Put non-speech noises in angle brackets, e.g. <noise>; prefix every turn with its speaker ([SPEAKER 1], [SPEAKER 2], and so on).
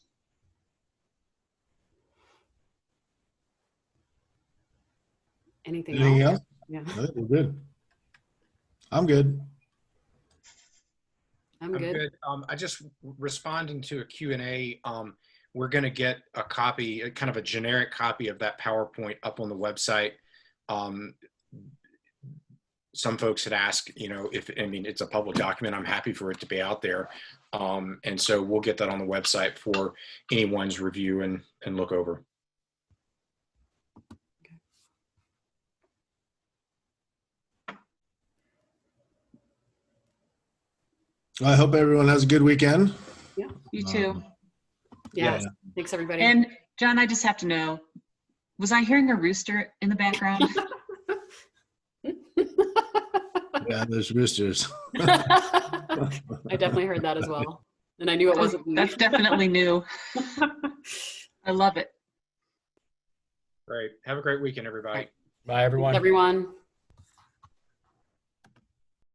[SPEAKER 1] Anything else?
[SPEAKER 2] Anything else?
[SPEAKER 1] Yeah,
[SPEAKER 2] I think we're good. I'm good.
[SPEAKER 1] I'm good.
[SPEAKER 3] Um, I just responding to a Q and A, um, we're gonna get a copy, a kind of a generic copy of that PowerPoint up on the website. Um, some folks had asked, you know, if, I mean, it's a public document, I'm happy for it to be out there. Um, and so we'll get that on the website for anyone's review and, and look over.
[SPEAKER 2] I hope everyone has a good weekend.
[SPEAKER 4] You too.
[SPEAKER 2] Um,
[SPEAKER 1] Yeah, thanks, everybody.
[SPEAKER 4] And John, I just have to know, was I hearing a rooster in the background?
[SPEAKER 2] Yeah, there's roosters.
[SPEAKER 1] <laughs> I definitely heard that as well. And I knew it wasn't me.
[SPEAKER 4] That's
[SPEAKER 1] <laughs>
[SPEAKER 4] definitely new. I love it.
[SPEAKER 3] Great. Have a great weekend, everybody.
[SPEAKER 1] Right.
[SPEAKER 5] Bye, everyone.
[SPEAKER 1] Everyone.